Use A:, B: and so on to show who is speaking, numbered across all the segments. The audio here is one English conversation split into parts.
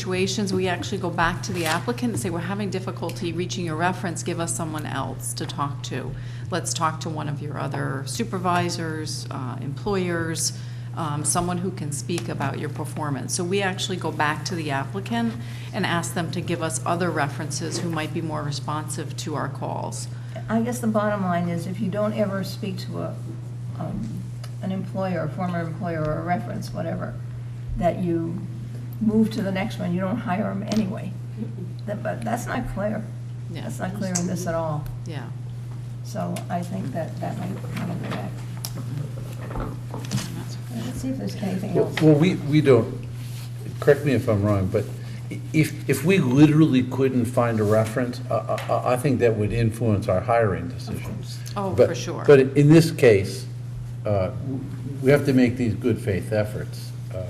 A: situations, we actually go back to the applicant and say, we're having difficulty reaching your reference, give us someone else to talk to. Let's talk to one of your other supervisors, uh, employers, um, someone who can speak about your performance. So we actually go back to the applicant and ask them to give us other references who might be more responsive to our calls.
B: I guess the bottom line is if you don't ever speak to a, um, an employer, a former employer or a reference, whatever, that you move to the next one, you don't hire them anyway. That- But that's not clear.
A: Yeah.
B: That's not clear in this at all.
A: Yeah.
B: So I think that that might kind of go back. Let's see if there's anything
C: Well,
B: else.
C: well, we, we don't, correct me if I'm wrong, but i- if, if we literally couldn't find a reference, I, I- I, I think that would influence our hiring decisions.
A: Oh,
C: But-
A: for sure.
C: But in this case, uh, w- we have to make these good faith efforts. uh,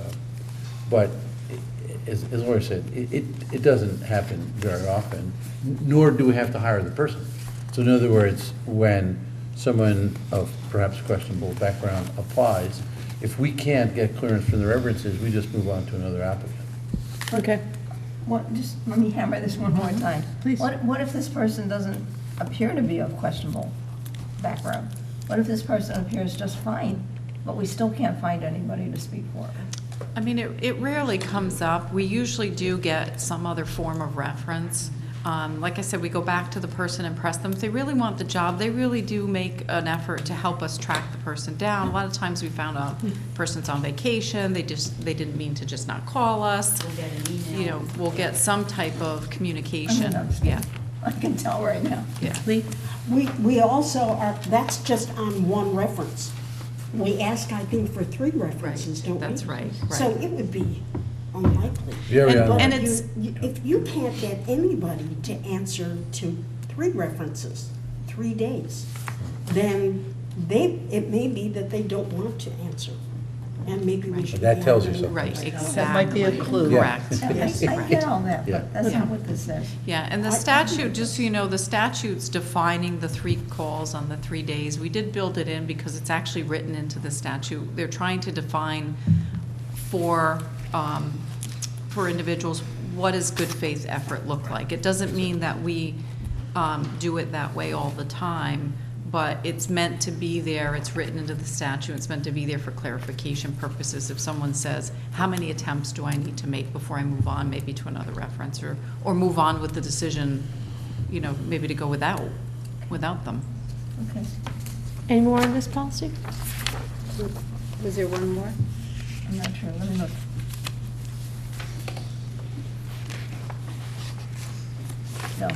C: But i- as, as Laura said, it, it- it doesn't happen very often, nor do we have to hire the person. So in other words, when someone of perhaps questionable background applies, if we can't get clearance from the references, we just move on to another applicant.
D: Okay.
B: What, just let me hammer this one more time. Please. What, what if this person doesn't appear to be of questionable background? What if this person appears just fine, but we still can't find anybody to speak for?
A: I mean, it, it rarely comes up. We usually do get some other form of reference. Um, like I said, we go back to the person and press them. If they really want the job, they really do make an effort to help us track the person down. A lot of times we found out person's on vacation, they just, they didn't mean to just not call us.
E: We'll get an email.
A: You know, we'll get some type of
B: I
A: communication.
B: don't
A: Yeah,
B: understand. I can tell right now.
A: yeah.
D: Lee?
F: We, we also are, that's just on one reference. We ask, I think, for three references, don't we?
A: that's right,
F: So
A: right.
F: it would be unlikely.
C: Very
A: And-
C: unlikely.
F: But
A: and
F: if
A: it's-
F: you- you- If you can't get anybody to answer to three references, three days, then they, it may be that they don't want to answer. And maybe we should.
C: That
F: be
C: tells you
F: hiring
C: something.
A: Right, exactly.
D: That might be a clue.
C: Yeah.
A: Correct.
B: I I
A: Right.
B: get all that,
C: Yeah.
B: but that's not what this says.
A: Yeah, and the statute, just so you know, the statute's defining the three calls on the three days. We did build it in because it's actually written into the statute. They're trying to define for, um, for individuals, what does good faith effort look like? It doesn't mean that we um, do it that way all the time, but it's meant to be there, it's written into the statute, it's meant to be there for clarification purposes. If someone says, how many attempts do I need to make before I move on, maybe to another reference, or, or move on with the decision, you know, maybe to go without, without them.
B: Okay.
D: Any more on this policy?
G: Was there one more?
B: I'm not sure, let me look. No,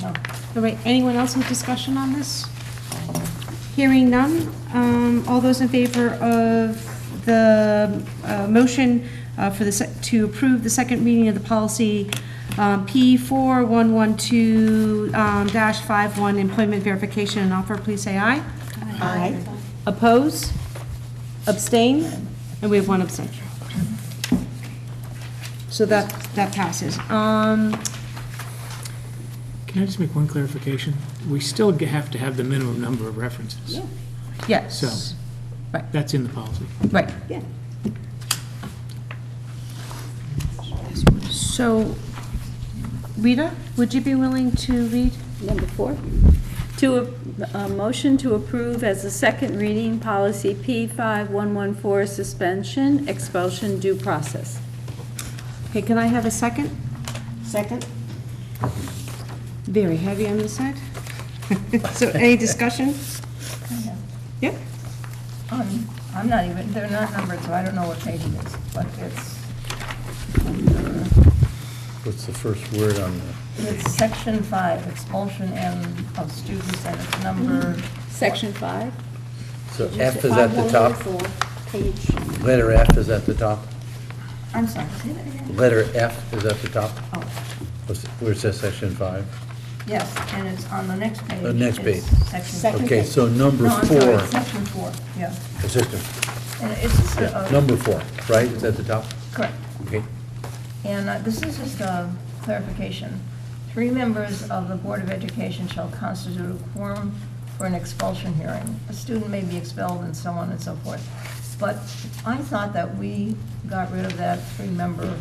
B: no.
D: All right, anyone else with discussion on this? Hearing none, um, all those in favor of the, uh, motion, uh, for the, sec- to approve the second reading of the policy, um, P four one one two, um, dash five one, employment verification and offer, please say aye.
F: Aye.
D: Oppose? Abstain? And we have one abstention. So that, that passes. Um,
H: Can I just make one clarification? We still g- have to have the minimum number of references.
D: yes,
H: So-
D: right,
H: That's in the policy.
D: right.
F: Yeah.
D: So, Rita, would you be willing to read?
G: Number four? To, a a motion to approve as a second reading, policy P5114, suspension, expulsion, due process.
D: Okay, can I have a second?
F: Second?
D: Very heavy on this side. So any discussion? Yeah?
B: I'm, I'm not even, they're not numbered, so I don't know what page it is, but it's,
C: What's the first word on the?
B: it's section five, expulsion and of students, and it's number,
G: Mm-hmm. Section five?
C: So F is at the top,
F: 5114, Page.
C: letter F is at the top,
B: I'm sorry, say that again?
C: letter F is at the top,
B: Oh,
C: What's- where it says section five.
B: yes, and it's on the next page.
C: The next
B: It's
C: page.
B: Section.
F: Second.
C: Okay, so number
B: No, I'm sorry,
C: four,
B: it's section four, yeah.
C: assistant,
B: And it's just
C: yeah,
B: a, a-
C: number four, right, is at the top?
B: correct.
C: Okay.
B: And uh, this is just a clarification. Three members of the Board of Education shall constitute a quorum for an expulsion hearing. A student may be expelled and so on and so forth. But I thought that we got rid of that three-member